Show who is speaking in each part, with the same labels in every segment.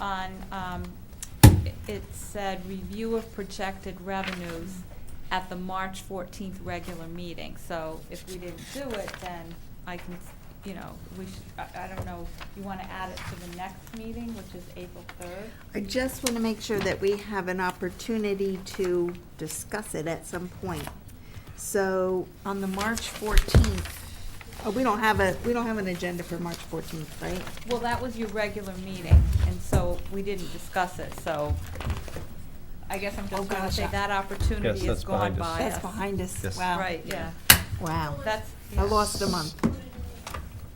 Speaker 1: on, um, it said, review of projected revenues at the March fourteenth regular meeting, so if we didn't do it, then I can, you know, we should, I, I don't know, you wanna add it to the next meeting, which is April third?
Speaker 2: I just want to make sure that we have an opportunity to discuss it at some point. So on the March 14th, oh, we don't have a, we don't have an agenda for March 14th, right?
Speaker 1: Well, that was your regular meeting, and so we didn't discuss it, so I guess I'm
Speaker 2: Oh,
Speaker 1: just gonna say
Speaker 2: gosh.
Speaker 1: that
Speaker 3: Yes,
Speaker 1: opportunity is
Speaker 3: that's
Speaker 1: gone
Speaker 3: behind us.
Speaker 1: by us.
Speaker 2: That's behind us.
Speaker 3: Yes.
Speaker 2: Wow.
Speaker 1: Right, yeah,
Speaker 2: Wow.
Speaker 1: that's.
Speaker 2: I lost a month.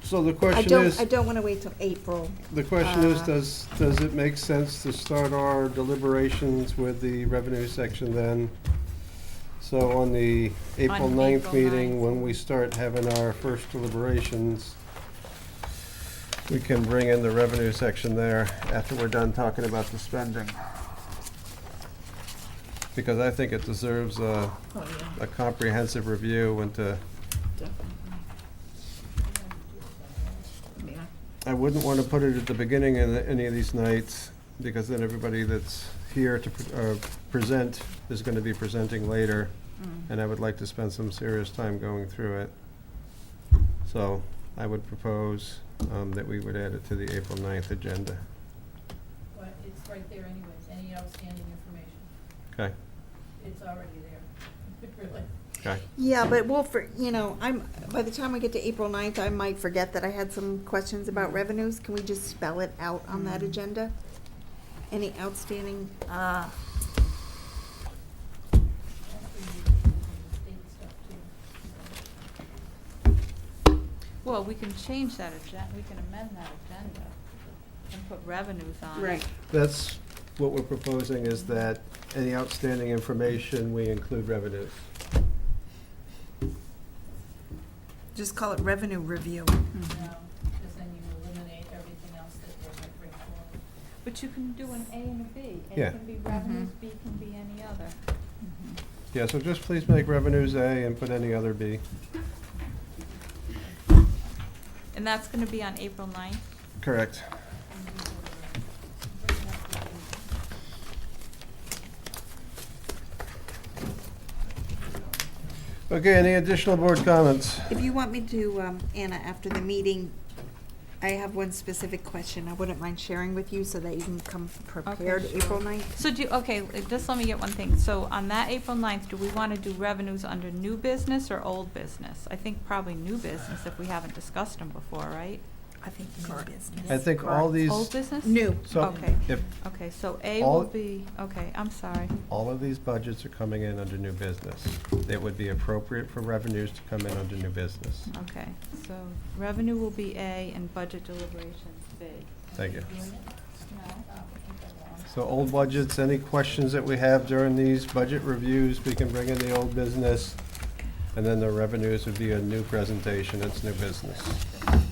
Speaker 4: So the
Speaker 2: I
Speaker 4: question
Speaker 2: don't,
Speaker 4: is,
Speaker 2: I don't want to wait till April.
Speaker 4: the question is,
Speaker 2: uh,
Speaker 4: does, does it make sense to start our deliberations with the revenue section then? So on the April
Speaker 1: On
Speaker 4: ninth
Speaker 1: April
Speaker 4: meeting,
Speaker 1: 9th.
Speaker 4: when we start having our first deliberations, we can bring in the revenue section there after we're done talking about the spending. Because I think it deserves a, a comprehensive review and to I wouldn't want to put it at the beginning of the- any of these nights, because then everybody that's here to pre- uh, present is going to be presenting later,
Speaker 2: Mm.
Speaker 4: and I would like to spend some serious time going through it. So I would propose um, that we would add it to the April 9th agenda.
Speaker 5: But it's right there anyways, any outstanding information,
Speaker 4: Okay,
Speaker 5: it's already there, really.
Speaker 4: okay.
Speaker 2: Yeah, but we'll, for, you know, I'm, by the time we get to April 9th, I might forget that I had some questions about revenues. Can we just spell it out on that
Speaker 1: Mm.
Speaker 2: agenda? Any outstanding, uh,
Speaker 5: Actually, you can do the state stuff too.
Speaker 1: Well, we can change that agenda, we can amend that agenda and put revenues on it.
Speaker 2: right.
Speaker 4: That's what we're proposing, is that any outstanding information, we include revenues.
Speaker 2: Just call it revenue review. Mm-hmm.
Speaker 5: No, because um, then you eliminate everything else that they might bring forward.
Speaker 1: But you can do an A and a B.
Speaker 4: Yeah.
Speaker 1: It can be revenues,
Speaker 2: Mm-hmm.
Speaker 1: B can be any other.
Speaker 4: Yeah, so just please make revenues A and put any other B.
Speaker 1: And that's gonna be on April ninth?
Speaker 4: Correct.
Speaker 5: And you can bring it up to the-
Speaker 4: Okay, any additional board comments?
Speaker 2: If you want me to, um, Anna, after the meeting, I have one specific question I wouldn't mind sharing with you so that you can come prepared
Speaker 1: sure.
Speaker 2: April ninth.
Speaker 1: So do, okay, uh, just let me get one thing. So on that April ninth, do we wanna do revenues under new business or old business? I think probably new business if we haven't discussed them before, right?
Speaker 2: I think new business.
Speaker 4: I think all these,
Speaker 1: Old business?
Speaker 2: New.
Speaker 4: so,
Speaker 1: Okay,
Speaker 4: if,
Speaker 1: okay, so A
Speaker 4: All-
Speaker 1: will be, okay, I'm sorry.
Speaker 4: all of these budgets are coming in under new business, it would be appropriate for revenues to come in under new business.
Speaker 1: Okay, so revenue will be A and budget deliberations B.
Speaker 4: Thank you.
Speaker 5: Unit?
Speaker 1: No?
Speaker 5: Oh, I think I lost.
Speaker 4: So old budgets, any questions that we have during these budget reviews, we can bring in the old business, and then the revenues would be a new presentation, it's new business.
Speaker 6: I know,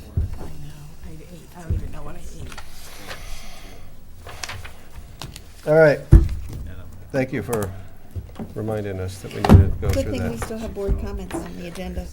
Speaker 6: I ate, I don't even know what I ate.
Speaker 4: All right. Thank you for reminding us that we need to go
Speaker 2: Good
Speaker 4: through
Speaker 2: thing we
Speaker 4: that.
Speaker 2: still have board comments on the agenda.